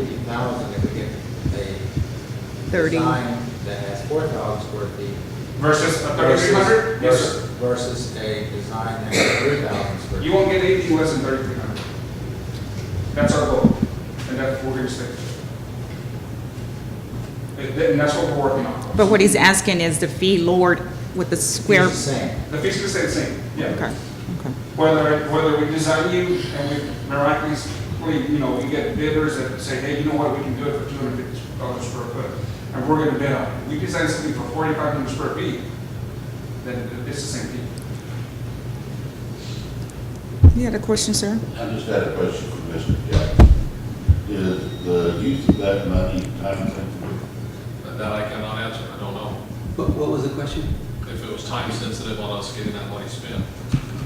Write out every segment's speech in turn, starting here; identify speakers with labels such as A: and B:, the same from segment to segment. A: thousand if we get a
B: 30.
A: design that has four thousand square feet.
C: Versus a thirty-three hundred? Yes,
A: versus-
C: sir.
A: Versus a design that has three thousand square.
C: You
A: feet.
C: won't get anything less than thirty-three hundred. That's our goal, and that's what we're gonna stick to. And and that's what we're working on.
B: But what he's asking is the fee lowered with the square.
A: It's the same.
C: The fees are the same, same, yeah.
B: Okay, okay.
C: Whether, whether we design you and we miraculously, you know, we get bidders that say, hey, you know what, we can do it for two hundred fifty dollars square foot, and we're gonna bid on it. We design something for forty-five hundred square feet, then it's the same fee.
B: You had a question, sir?
D: I just had a question for Mr. Jackson. Is the use of that money time sensitive?
E: That I cannot answer, I don't know.
F: What, what was the question?
E: If it was time sensitive on us getting that money spent.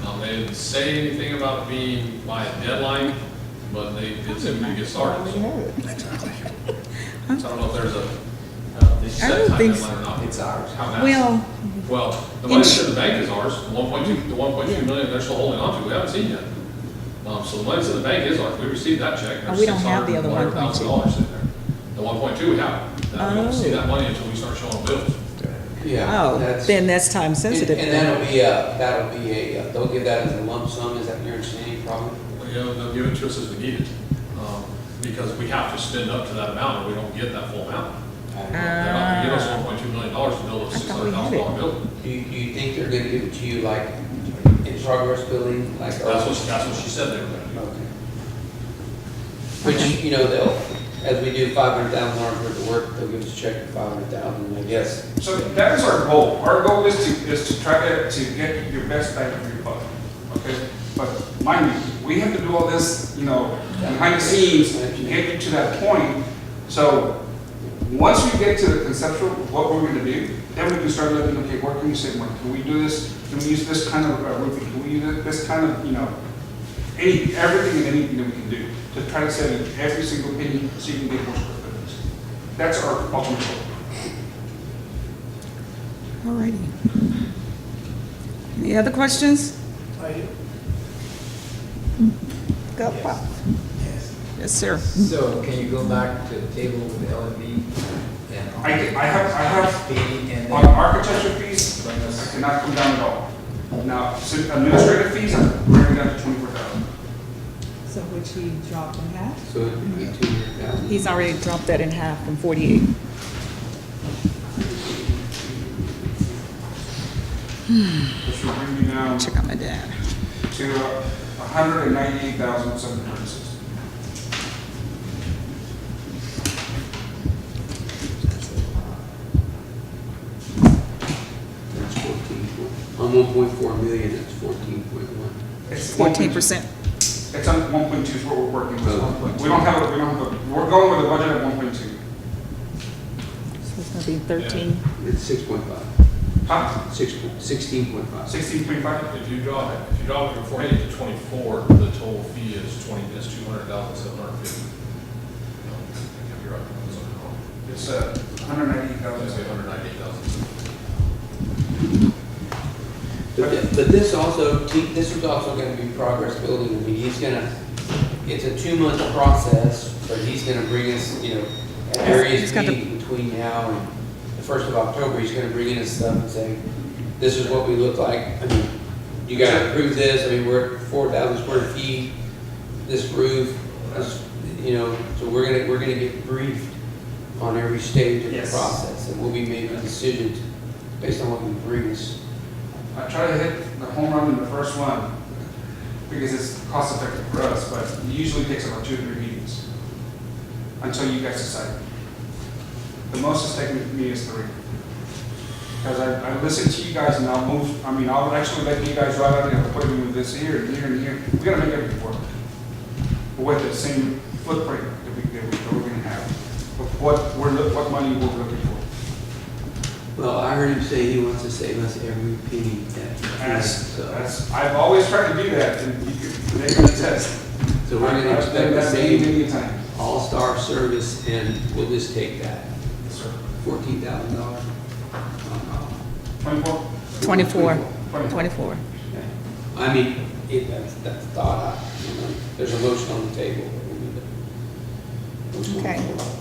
E: Um, they didn't say anything about being by a deadline, but they did say we could get started. So I don't know if there's a uh,
B: I don't
E: set time
B: think so.
E: deadline or not. It's ours. How that's.
B: Well,
E: Well, the money
B: Ins-
E: to the bank is ours, the one point two, the one point two million they're still holding on to, we haven't seen yet. Um, so the money to the bank is ours, we received that check.
B: Oh, we don't have the other
E: Dollars in there. The one point two we have, now we don't see
B: Oh.
E: that money until we start showing bills.
F: Yeah.
B: oh,
F: that's-
B: then that's time sensitive.
F: And and
B: then.
F: that'll be a, that'll be a, uh, they'll give that as a lump sum, is that your understanding, probably?
E: Well, you know, they'll give it to us as we need it, um, because we have to spend up to that amount, or we don't get that full amount.
F: Uh,
E: They're not gonna give us one point two million dollars to build a
B: Ah. I
E: six
B: thought we had
E: hundred thousand dollar building.
F: Do you, do you think they're gonna give it to you like in progress building, like?
E: That's what, she- that's what she said they were gonna do.
F: Okay. Which, you know, they'll, as we do five hundred thousand dollars worth of work, they'll give us a check for five hundred thousand, I guess.
C: So that is our goal. Our goal is to, is to try to, to get your best bang for your buck, okay? But mind you, we have to do all this, you know, behind the scenes to get you to that point. So, once we get to the conceptual, of what we're gonna do, then we can start looking, okay, what can we say more? Can we do this? Can we use this kind of uh, roofing? Can we use this kind of, you know, any, everything and anything that we can do to try to save every single penny so you can get more square footage. That's our ultimate goal.
B: Ah. All righty. Any other questions?
G: I do.
B: Go, Bob. Yes, sir.
A: So can you go back to the table with the LME and?
C: I, I have, I have,
A: Fee and
C: on
A: then
C: architecture fees,
A: bring
C: I
A: us,
C: cannot come down at all. Now, so administrative fees, I'm bringing down to twenty-four thousand.
H: So which he dropped in half?
F: So it would be two hundred thousand.
B: He's already dropped that in half from 48.
C: Which will bring me down
B: Check on my dad.
C: to uh, a hundred and ninety-eight thousand seven hundred and sixty.
F: That's fourteen point, on one point four million, that's fourteen point one.
C: It's
B: 14%.
C: It's on one point two is what we're working
F: Oh.
C: with. We don't have, a we don't have, a we're going with a budget of one point two.
B: So it's going to be 13.
F: It's six point five,
C: Huh?
F: six, point- sixteen point five.
C: Sixteen point five?
E: If you drop it, if you drop it from forty-eight to twenty-four, the total fee is twenty, is two hundred thousand seven hundred fifty. I could be right, I'm sorry, wrong.
C: It's uh hundred and ninety-eight
E: I was gonna say
C: thousand.
E: hundred ninety-eight thousand.
F: But, thi- but this also, te- this was also gonna be progress building, I mean, he's gonna, it's a two-month process, but he's gonna bring us, you know, at
B: He's
F: various
B: got the-
F: meetings between now and the first of October, he's gonna bring in his stuff and say, this is what we look like, I mean, you gotta approve this, I mean, we're four thousand square feet, this roof, us- you know, so we're gonna, we're gonna get briefed on every stage of the
C: Yes.
F: process, and we'll be making decisions based on what you bring us.
C: I try to hit the home run in the first one because it's cost effective for us, but it usually takes about two or three meetings until you guys decide. The most it's taken me is three. Because I, I listen to you guys and I'll move, I mean, I'll actually let you guys drive out and I'll put you in this here and here and here. We gotta make everything work. With the same footprint that we, that we- that we're gonna have, of what we're, look- what money we're looking for.
F: Well, I heard him say he wants to save us every penny that he
C: And
F: can,
C: that's,
F: so,
C: that's, I've always tried to do that, and you can, they can attest.
F: so we're gonna
C: I've done
F: expect the
C: that many,
F: same
C: many times.
F: all-star service, and we'll just take that, fourteen thousand dollars.
C: Twenty-four?
B: 24. 24.
F: I mean, it, that's, that's thought, out, you know, there's a motion on the table. but we need to-
B: Okay.